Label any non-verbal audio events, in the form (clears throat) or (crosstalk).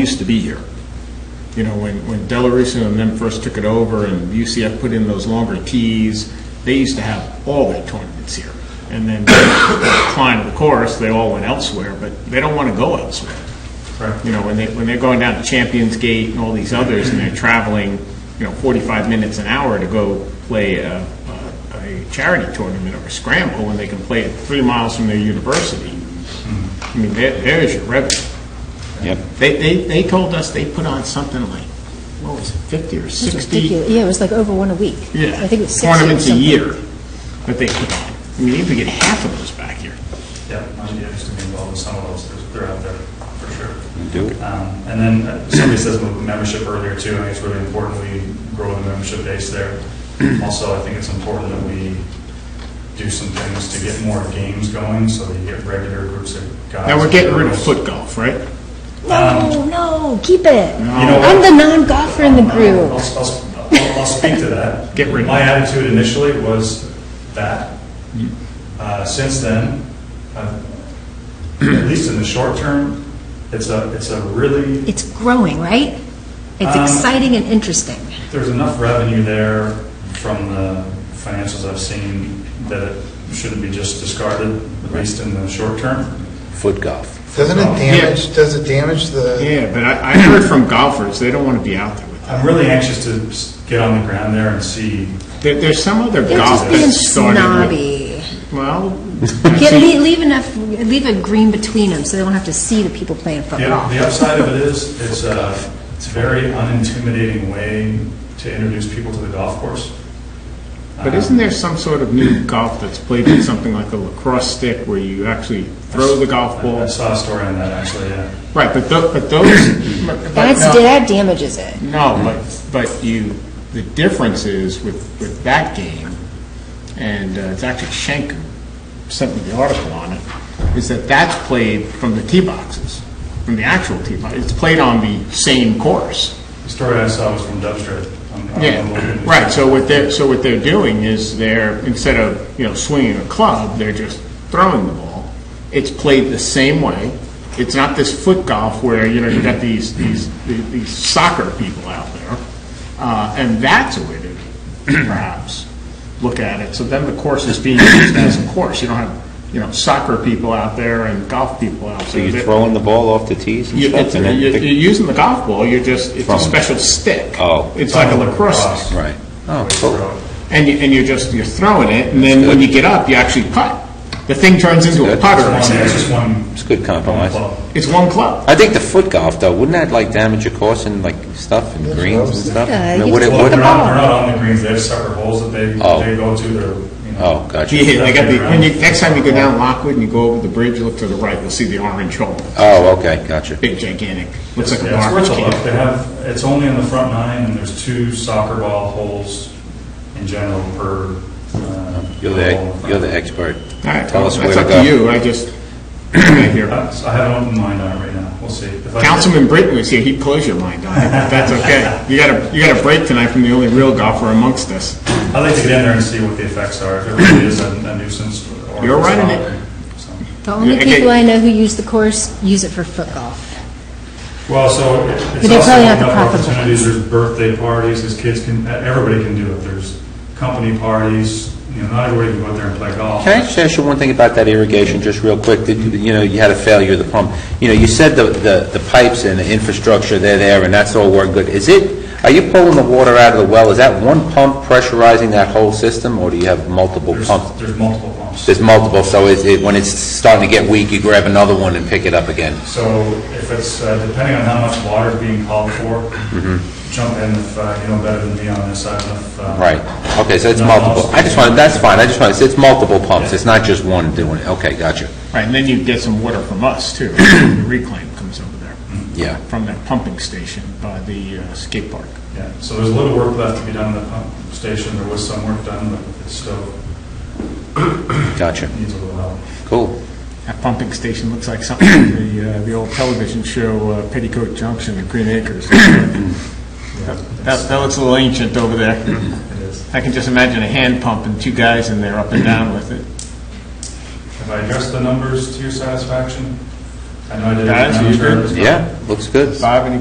used to be here. You know, when, when Delarusso and them first took it over and UCF put in those longer tees, they used to have all their tournaments here. And then the decline of the course, they all went elsewhere, but they don't want to go elsewhere. Right. You know, when they, when they're going down to Champions Gate and all these others and they're traveling, you know, 45 minutes an hour to go play a, a- a charity tournament or a scramble when they can play it three miles from their university. I mean, there, there's your revenue. Yep. They, they, they told us they put on something like, what was it, 50 or It's 60? ridiculous. Yeah, it was like over one a week. Yeah. I think it was 60 or Tournaments a something. year that they put on. I mean, if we get half of those back here. Yeah, I'd be interested in involved in some of those, There's- they're out there, for sure. Do it. Um, And then uh, somebody says mem- membership earlier too, I think it's really important we grow the membership base there. (clears throat) Also, I think it's important that we do some things to get more games going, so that you get regular groups of guys. Now, we're and getting rid of girls. foot golf, right? No, Um, no, keep it. You know I'm what? the non-golfer in the I'll, group. I'll, I'll- I'll speak to that. Get rid of My it. attitude initially was that. Uh, Since then, I've- at least in the short term, it's a, it's a really It's growing, right? It's Um, exciting and interesting. There's enough revenue there from the financials I've seen that it shouldn't be just discarded, at least in the short term. Foot golf. Doesn't it Yeah. damage, does it damage the, Yeah, but I, I heard from golfers, they don't want to be out there with that. I'm really anxious to s- get on the ground there and see. There, there's some other They're golf just being that started with. snobby. Well, Get, leave, leave enough, leave a green between them so they don't have to see the people playing The football. the upside of it is, it's a, it's a very unintimidating way to introduce people to the golf course. but isn't there some sort of new golf that's played with something like a lacrosse stick where you actually throw the golf I ball? saw a story on that, actually, yeah. Right, but tho, but those. but- uh, That's, no. that damages it. No, but, but you, the difference is with, with that game, and uh, it's actually Schenk sent me the article on it, is that that's played from the tee boxes, from the actual tee box. It's played on the same course. The story I saw was from Dubstrid. on- on the local Yeah, news. right, so what they're, so what they're doing is they're, instead of, you know, swinging a club, they're just throwing the ball. It's played the same way. It's not this foot golf where, you know, you've got these, these, these soccer people out there. Uh, and that's a way to perhaps look at it. So then the course is being used as a course. You don't have, you know, soccer people out there and golf people out there. So you're They're- throwing the ball off the tees and you- stuff? it's- and then You're you're pick- using the golf ball, you're just, it's a Throwing. special stick. Oh. It's like a lacrosse stick. Right. Oh, Throw cool. it. And you, and you're just, you're throwing it, and then when you get up, you actually putt. The thing turns into a Good. putter. It's one- it's It's- just one. It's a good compromise. club. It's one club. I think the foot golf, though, wouldn't that like damage your course and like stuff and greens and stuff? Yeah, I mean, you would it- just Well, would- the they're not, ball. they're not on the greens, they have separate holes that they, Oh. they go to, they're, you know. Oh, gotcha. Yeah, they got the, when you, next time you go down Lockwood and you go over the bridge, look to the right, you'll see the orange hole. Oh, okay, gotcha. Big gigantic, looks like a Yeah, it's garbage worth a look, they can. have, it's only on the front nine, and there's two soccer ball holes in general per. uh, You're hole the, in front. you're the expert. All right, Tell us where that's to up to go. you, I just, I hear. Uh, so I have an open mind on it right now, we'll see. If I- Councilman Britton was here, he'd close your mind on it, but that's okay. You got a, you got a break tonight from the only real golfer amongst us. I'd like to get in there and see what the effects are, if it really is a a nuisance. or- You're running it. So- The only Yeah, okay. people I know who use the course use it for foot golf. Well, so it- it's But they also probably have enough the profit. opportunities, there's birthday parties, these kids can, everybody can do it, there's company parties, you know, not everybody can go out there and play golf. Can I just ask you one thing about that irrigation, just real quick? Did You you know, you had a failure of the pump. You know, you said the, the the pipes and the infrastructure, they're there, and that's all worked good. Is it, are you pulling the water out of the well? Is that one pump pressurizing that whole system, or do you have multiple There's, pumps? there's multiple pumps. There's multiple, so is it, when it's starting to get weak, you grab another one and pick it up again? So if it's, uh, depending on how much water is being called for, Mm-hmm. jump in if uh, you know better than me on this, I don't know if. uh, Right. Okay, so it's No, multiple. I'll- I just wanted, that's fine, I just wanted, it's multiple pumps, it's not just one doing it. Okay, gotcha. Right, and then you get some water from us, too. The reclaim comes over there. Yeah. From that pumping station by the uh, skate park. Yeah, so there's a little work left to be done in the pump station, there was some work done, but it still Gotcha. needs a little help. Cool. That pumping station looks like something from the, uh, the old television show uh, Petticoat Junction in Green Acres. That, that looks a little ancient over there. It is. I can just imagine a hand pump and two guys in there up and down with it. Have I addressed the numbers to your satisfaction? I know I did. Guys, you good? Yeah, looks good. Bob, any